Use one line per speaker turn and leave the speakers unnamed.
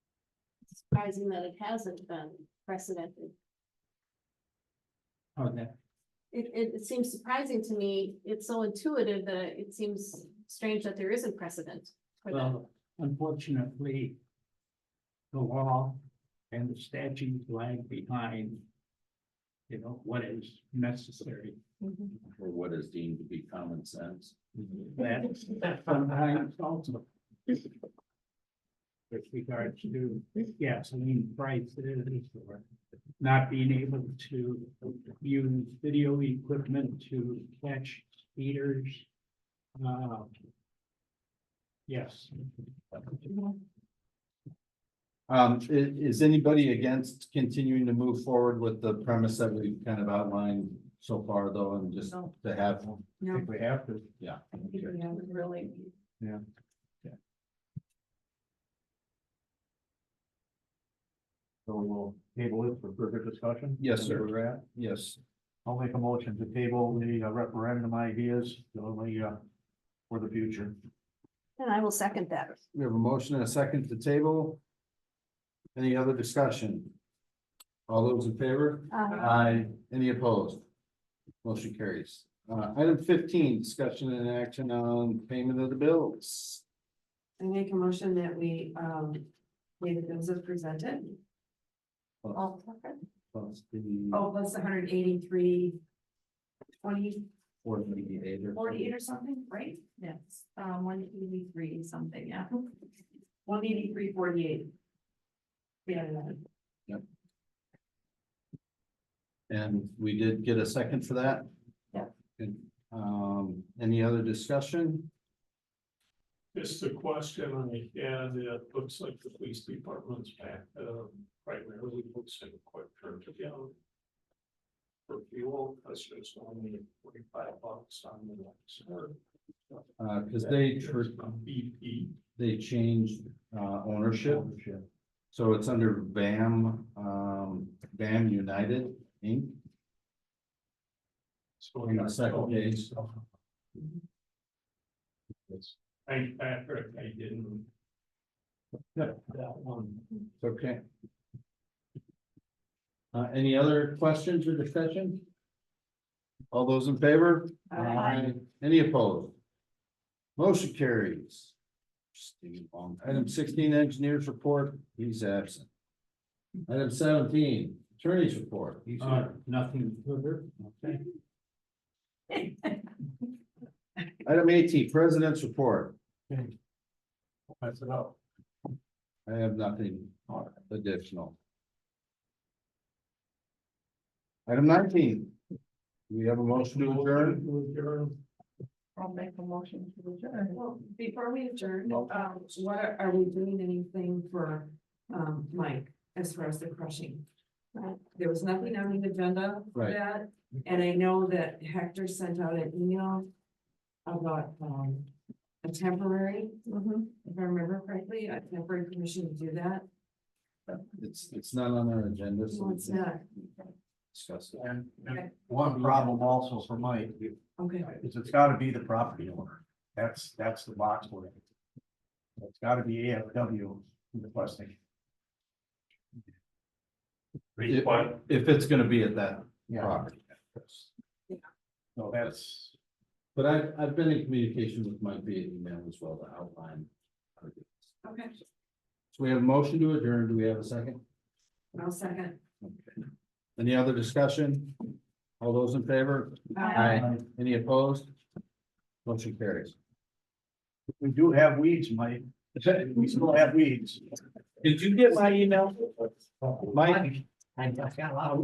surprising that it hasn't been precedented.
Oh, that,
It, it, it seems surprising to me. It's so intuitive that it seems strange that there isn't precedent for that.
well, unfortunately. The law and the statute lag behind. You know, what is necessary.
Mm-hmm.
or what is deemed to be common sense.
That's, that's sometimes also. With regards to gasoline prices or not being able to use video equipment to catch speeders. Uh, Yes.
Um, i- is anybody against continuing to move forward with the premise that we've kind of outlined so far though, and just
No.
to have?
I think we have to.
Yeah.
Really.
So we'll table it for further discussion.
Yes,
Is
sir.
that where we're at?
Yes,
I'll make a motion to table the uh, referendum ideas, the only, uh, for the future.
And I will second that.
we have a motion and a second to table. Any other discussion? All those in favor?
Uh,
Aye. Any opposed? Motion carries. Uh, item fifteen, discussion and action on payment of the bills.
I make a motion that we, um, pay the bills as presented.
Plus-
Oh,
plus the
oh, that's hundred eighty-three, twenty,
forty-eight or-
forty-eight or something, right? Yes, um, one eighty-three something, yeah. One eighty-three, forty-eight. Yeah,
And we did get a second for that?
Yeah.
And, um, any other discussion?
Just a question on the, yeah, it looks like the police department's back, uh, primarily looks like a quick turn to go. For fuel, that's just only forty-five bucks on the next.
Uh, cause they, tr-
BP,
they changed, uh, ownership, so it's under BAM, um, BAM United Inc.
so.
On the second page,
I, Patrick, I didn't. That, that one.
It's okay. Uh, any other questions or discussion? All those in favor?
Aye.
Any opposed? Motion carries. Steve, um, Item sixteen, engineers report, he's absent. Item seventeen, attorney's report, he's
Uh,
here.
nothing further. Okay.
Item eighteen, president's report,
That's it up.
I have nothing additional. Item nineteen, we have a motion to adjourn,
I'll make a motion to adjourn. Well, before we adjourn, um, what are, are we doing anything for, um, Mike as far as the crushing?
Right.
There was nothing on the agenda for
Right.
that, and I know that Hector sent out an email about, um, a temporary,
mhm.
if I remember correctly, a temporary permission to do that.
it's, it's not on our agenda, so.
No, it's not.
Discuss it.
And and one problem also for Mike
Okay,
is it's gotta be the property owner. That's, that's the box we're in. It's gotta be AFW requesting.
If, if it's gonna be at that
Yeah,
property.
so that's.
But I, I've been in communication with Mike via email as well to outline. how to do this.
okay,
So we have a motion to adjourn. Do we have a second?
I'll second.
Okay. Any other discussion? All those in favor? Any opposed? Motion carries.
We do have weeds, Mike. We still have weeds.
Did you get my email? Mike?
I just got a lot of